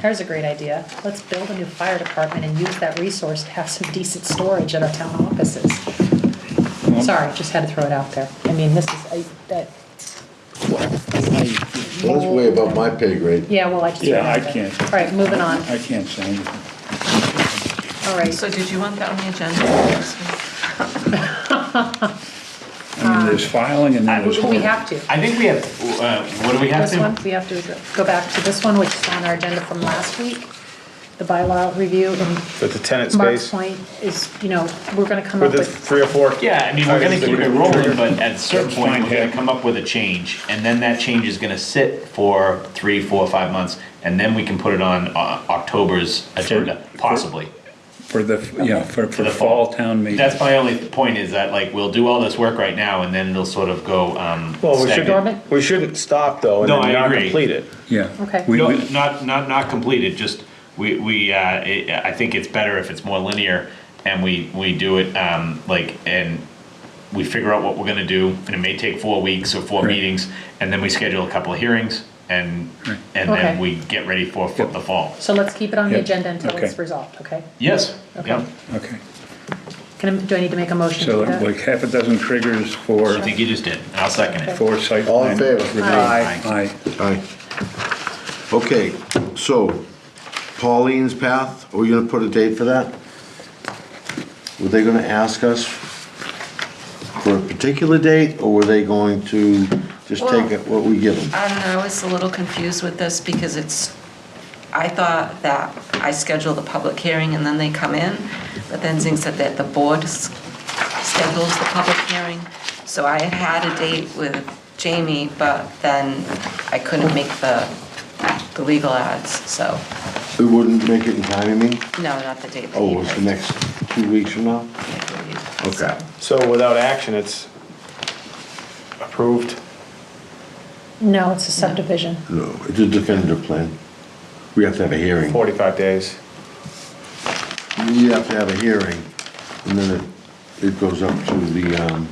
There's a great idea. Let's build a new fire department and use that resource to have some decent storage at our town offices. Sorry, just had to throw it out there. I mean, this is, I, that, Well, That's way above my pay grade. yeah, well, I just. Yeah, I remembered. can't. All right, moving on. I can't say anything. All right. So did you want that on the agenda? I mean, there's filing and then Um, I- there's. We have to. I think we have, uh, what do we have This one, to? we have to go back to this one, which is on our agenda from last week, the bylaw review. and But the tenant Mark's space, point is, you know, we're gonna come for up the with, three or four. Yeah, I mean, we're gonna items that keep we- it rolling, but at a certain That's point, fine, we're gonna yeah. come up with a change, and then that change is gonna sit for three, four, five months, and then we can put it on, uh, October's agenda, possibly. For the, yeah, for, for the fall town meeting. That's my only point, is that like, we'll do all this work right now, and then it'll sort of go, um, Well, we stagnant. should, we shouldn't stop though and No, then I not agree. complete it. Yeah. Okay. We, No, we, not, not, not completed, just, we, we, uh, it- I think it's better if it's more linear, and we, we do it, um, like, and we figure out what we're gonna do, and it may take four weeks or four Right. meetings, and then we schedule a couple of hearings, and, and Okay. then we get ready for, for the fall. so let's keep it on the Yeah, agenda until it's okay. resolved, okay? Yes, yeah, okay. Can I, do I need to make a motion So to that? like half a dozen triggers for, I think you just did, and I'll second it. for site. All in plan favor? review. Aye. Aye. Aye. Okay, so Pauline's Path, are we gonna put a date for that? Were they gonna ask us for a particular date, or were they going to just take it what we give them? I don't know, Um, I was a little confused with this because it's, I thought that I scheduled the public hearing and then they come in, but then Zing said that the board s- schedules the public hearing. So I had had a date with Jamie, but then I couldn't make the, the legal ads, so, We wouldn't make it in time, I mean? no, not the date. that Oh, you it's the picked. next two weeks from now? Okay. So without action, it's approved. No, it's a subdivision. No, it's a definitive plan. We have to have a hearing. 45 days. We have to have a hearing, and then it, it goes up to the, um,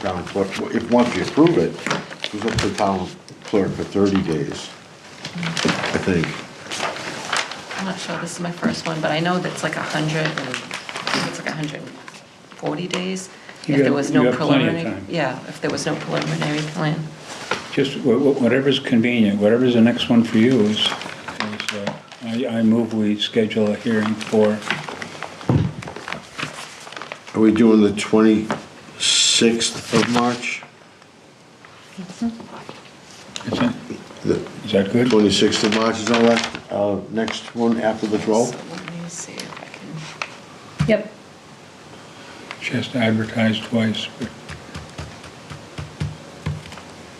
town clerk, if, once you approve it, it goes up to the town clerk for thirty days, I think. I'm not sure, this is my first one, but I know that's like a hundred and, I think it's like a hundred and forty days. You If there got- was you no have plenty of preliminary, time. yeah, if there was no preliminary plan. Just wha- wha- whatever's convenient, whatever's the next one for you is, is, uh, I, I move we schedule a hearing for, Are we doing the twenty-sixth of March? is that, The is that good? twenty-sixth of March is all that, uh, next one after the So twelfth? let me see if I can. Yep, Just advertise twice, but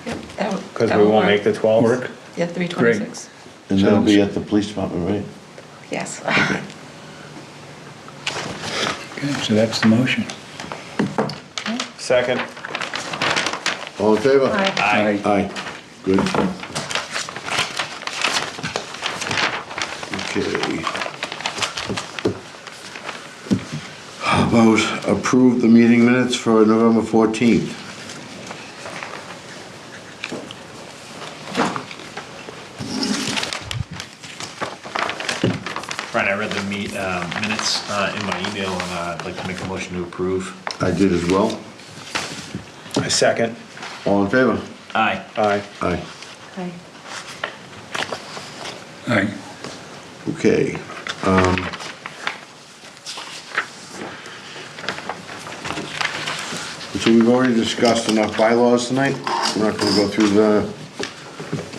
Yep, that would- Because that we would won't make the 12th. work, Yeah, three twenty-six, And that'll be at the police department, right? yes. okay, so that's the motion. Second. All in favor? aye. Aye. Aye, good. Okay. How about approve the meeting minutes for November 14th? Brian, I read the meet, uh, minutes, uh, in my email, and, uh, I'd like to make a motion to approve. I did as well. I Second. All in favor? Aye. Aye. Aye. Aye. Aye. Okay. um, So we've already discussed enough bylaws tonight. We're not gonna go through the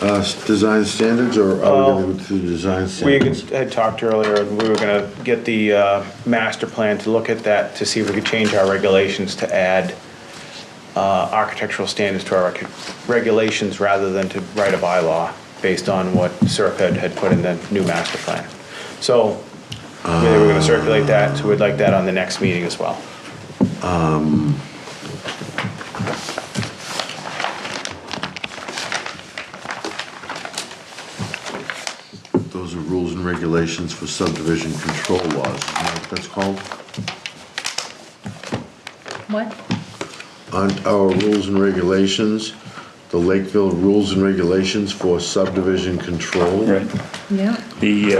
uh, s- design standards, or are we gonna go through the design We standards? had talked earlier, and we were gonna get the uh, master plan to look at that, to see if we could change our regulations to add uh, architectural standards to our rec- regulations rather than to write a bylaw based on what Serped had put in the new master plan. So, we were gonna circulate that, so we'd like that on the next meeting as well. Those are rules and regulations for subdivision control laws, isn't that what that's called? What? Aren't our rules and regulations, the Lakeville Rules and Regulations for Subdivision Control? Right. Yeah. The, uh,